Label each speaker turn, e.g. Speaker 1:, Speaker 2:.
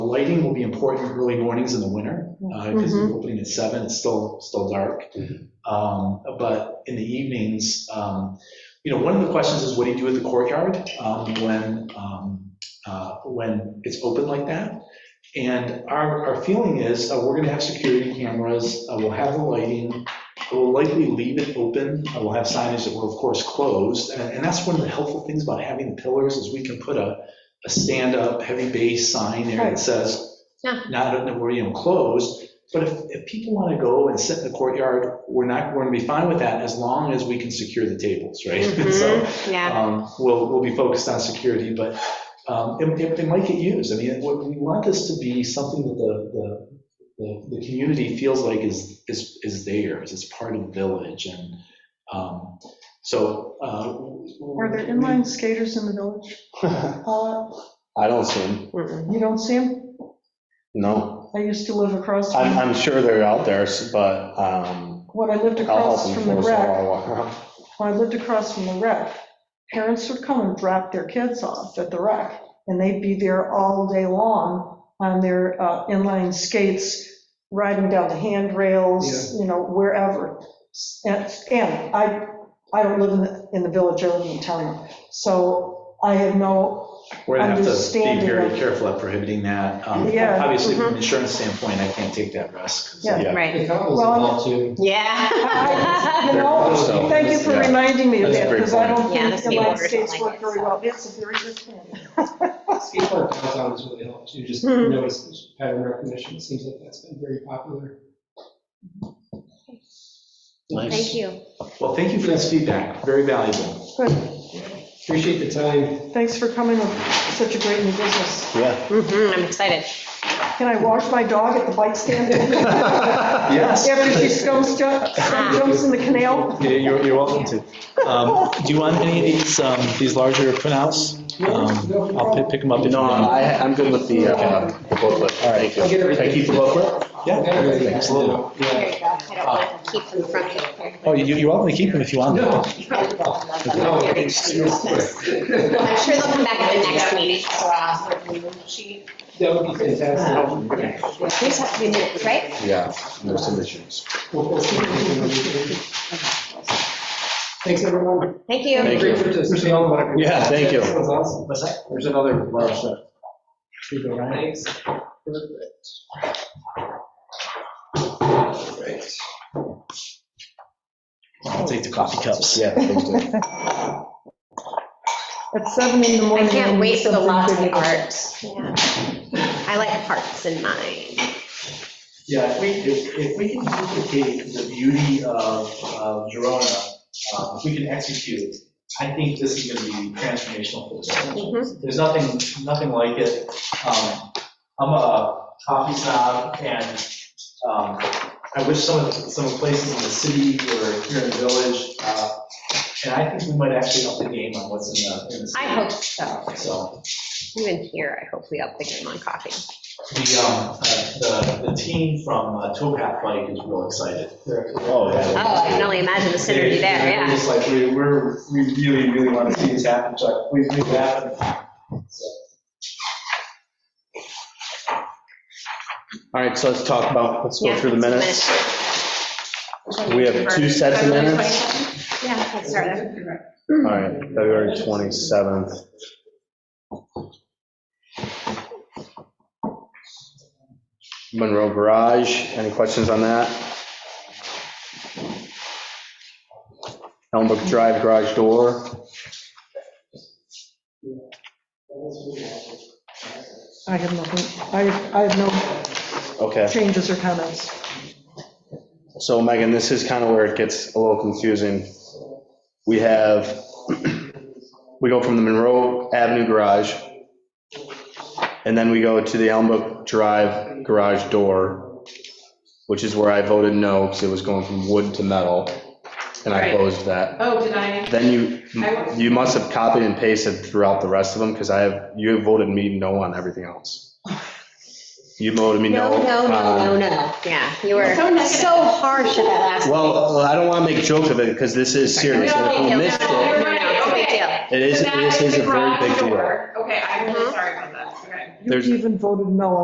Speaker 1: lighting will be important early mornings in the winter, because we're opening at seven, it's still, still dark. Um, But in the evenings, um, you know, one of the questions is what do you do with the courtyard um, when, um, uh, when it's open like that? And our, our feeling is, uh, we're going to have security cameras, uh, we'll have the lighting, we'll likely leave it open, uh, we'll have signage that will, of course, closed. And and that's one of the helpful things about having the pillars is we can put a, a stand-up, heavy base sign there that says,
Speaker 2: Yeah.
Speaker 1: not, that we're even closed. But if, if people want to go and sit in the courtyard, we're not, we're going to be fine with that as long as we can secure the tables, right? And so
Speaker 2: Yeah,
Speaker 1: um, we'll, we'll be focused on security, but um, it, it- it might get used. I mean, what- we want this to be something that the, the, the, the community feels like is, is, is theirs, it's part of the village and, um, so. uh,
Speaker 3: Are
Speaker 1: Are
Speaker 3: there inline skaters in the village? Paula?
Speaker 4: I don't see them,
Speaker 2: Mm-mm.
Speaker 3: You don't see them?
Speaker 4: no.
Speaker 3: I used to live across,
Speaker 4: I'm,
Speaker 3: from
Speaker 4: I'm sure they're out there, s- but um,
Speaker 3: when I lived
Speaker 4: I'll help
Speaker 3: across from the
Speaker 4: enforce
Speaker 3: wreck,
Speaker 4: that while I walk around.
Speaker 3: when I lived across from the wreck, parents would come and drop their kids off at the wreck, and they'd be there all day long on their uh, inline skates, riding down the handrails, you know, wherever. And and I, I don't live in the, in the village, I live in the town, so I have no,
Speaker 1: We're gonna have to be
Speaker 3: understanding
Speaker 1: very
Speaker 3: of-
Speaker 1: careful at prohibiting that. Um,
Speaker 3: Yeah. Mm-hmm.
Speaker 1: Obviously, from an insurance standpoint, I can't take that risk.
Speaker 3: Yeah.
Speaker 4: Yeah.
Speaker 2: Right,
Speaker 5: The condos
Speaker 3: Well,
Speaker 5: allow too.
Speaker 2: yeah.
Speaker 3: you know,
Speaker 4: So-
Speaker 3: Thank you for
Speaker 4: Yeah.
Speaker 3: reminding me of
Speaker 4: That's a
Speaker 3: that,
Speaker 4: great
Speaker 3: because I
Speaker 4: point.
Speaker 3: don't
Speaker 2: Yeah,
Speaker 3: think
Speaker 2: that's
Speaker 3: the
Speaker 2: me
Speaker 3: United
Speaker 2: orders
Speaker 3: States
Speaker 2: like
Speaker 3: work
Speaker 2: it,
Speaker 3: very
Speaker 2: so.
Speaker 3: well. It's a very good plan.
Speaker 5: Skate park downtown is really helped too, just
Speaker 2: Mhm.
Speaker 5: notice this pattern recognition, it seems like that's been very popular.
Speaker 2: Thank you.
Speaker 1: Well, thank you for this feedback, very valuable.
Speaker 3: Good.
Speaker 5: Appreciate the time.
Speaker 3: Thanks for coming with such a great new business.
Speaker 4: Yeah.
Speaker 2: Mhm, I'm excited.
Speaker 3: Can I wash my dog at the bike stand
Speaker 1: Yes.
Speaker 3: after she scums, jump- scum jumps in the canal?
Speaker 1: Yeah, You're, you're welcome to. Um, Do you want any of these, um, these larger printouts? Um,
Speaker 5: No, no
Speaker 1: I'll
Speaker 5: problem.
Speaker 1: pick- pick them up if you
Speaker 4: No,
Speaker 1: want.
Speaker 4: I, I'm good with the uh, the booklet, thank you.
Speaker 5: I'll get everything.
Speaker 4: Can I keep the booklet?
Speaker 1: Yeah,
Speaker 5: Everything.
Speaker 1: absolutely.
Speaker 5: Yeah.
Speaker 2: There you go. I don't want to keep them from here.
Speaker 1: Oh, you- you're welcome to keep them if you want.
Speaker 5: No.
Speaker 2: You probably will love them.
Speaker 5: No,
Speaker 2: They're
Speaker 5: Oh, it's- you're
Speaker 2: expensive.
Speaker 5: quick.
Speaker 2: I'm sure they'll come back at the next meeting.
Speaker 5: That would be fantastic.
Speaker 2: Uh, These have to be new, right?
Speaker 4: Yeah, there's some issues.
Speaker 5: We'll- we'll keep it. Thanks, everyone.
Speaker 2: Thank you.
Speaker 4: Thank you.
Speaker 5: Great for this. There's another one.
Speaker 4: Yeah, thank you.
Speaker 5: That sounds awesome. There's another large set. Keep it right. Perfect.
Speaker 1: I'll take the coffee cups.
Speaker 4: Yeah. thank you.
Speaker 3: At seven in the
Speaker 2: I
Speaker 3: morning.
Speaker 2: can't
Speaker 3: I'll
Speaker 2: wait for
Speaker 3: do
Speaker 2: the
Speaker 3: something
Speaker 2: lots of
Speaker 3: big.
Speaker 2: art. Yeah. I like hearts in mine.
Speaker 6: Yeah, if we, if, if we can duplicate the beauty of, of Girona, um, if we can execute it, I think this is gonna be transformational for this.
Speaker 2: Mhm.
Speaker 6: There's nothing, nothing like it. Um, I'm a coffee snob and, um, I wish some of, some places in the city or here in the village, uh, and I think we might actually up the game on what's in the, in the city.
Speaker 2: I hope so.
Speaker 6: So.
Speaker 2: Even here, I hope we up the game on coffee.
Speaker 6: The, um, uh, the, the team from uh, Towpath Bike is real excited.
Speaker 4: Oh, yeah.
Speaker 2: Oh, I can only imagine the synergy there,
Speaker 6: They're
Speaker 2: yeah.
Speaker 6: Just like, we, we're, we really, really want to see this happen, so we, we happen.
Speaker 4: All right, so let's talk about, let's go
Speaker 2: Yeah,
Speaker 4: through the
Speaker 2: it's
Speaker 4: minutes. We have two sets of
Speaker 2: February
Speaker 4: minutes?
Speaker 2: 27th? Yeah, let's start there.
Speaker 4: All right, February 27th. Monroe Garage, any questions on that? Elmbrook Drive garage door,
Speaker 3: I have nothing, I, I have no
Speaker 4: okay.
Speaker 3: changes or comments.
Speaker 4: So Megan, this is kind of where it gets a little confusing. We have, we go from the Monroe Avenue garage, and then we go to the Elmbrook Drive garage door, which is where I voted no, because it was going from wood to metal, and I
Speaker 7: Right.
Speaker 4: closed that.
Speaker 7: Oh, did I?
Speaker 4: Then you, you must have copied and pasted throughout the rest of them, because I have, you voted me no on everything else. You voted me no.
Speaker 2: No, no,
Speaker 4: on-
Speaker 2: no, no, no, yeah, you were
Speaker 7: So negative.
Speaker 2: so harsh at that last.
Speaker 4: Well, I don't want to make jokes of it because this is serious. and If
Speaker 2: No,
Speaker 4: we
Speaker 2: no,
Speaker 4: missed
Speaker 2: no,
Speaker 4: it,
Speaker 2: you're right,
Speaker 7: No, no,
Speaker 2: big
Speaker 7: okay.
Speaker 2: deal.
Speaker 4: it is,
Speaker 7: So that
Speaker 4: this is
Speaker 7: the
Speaker 4: a very
Speaker 7: garage
Speaker 4: big deal.
Speaker 7: door. Okay, I'm really sorry about that, okay.
Speaker 4: There's-
Speaker 3: You even voted no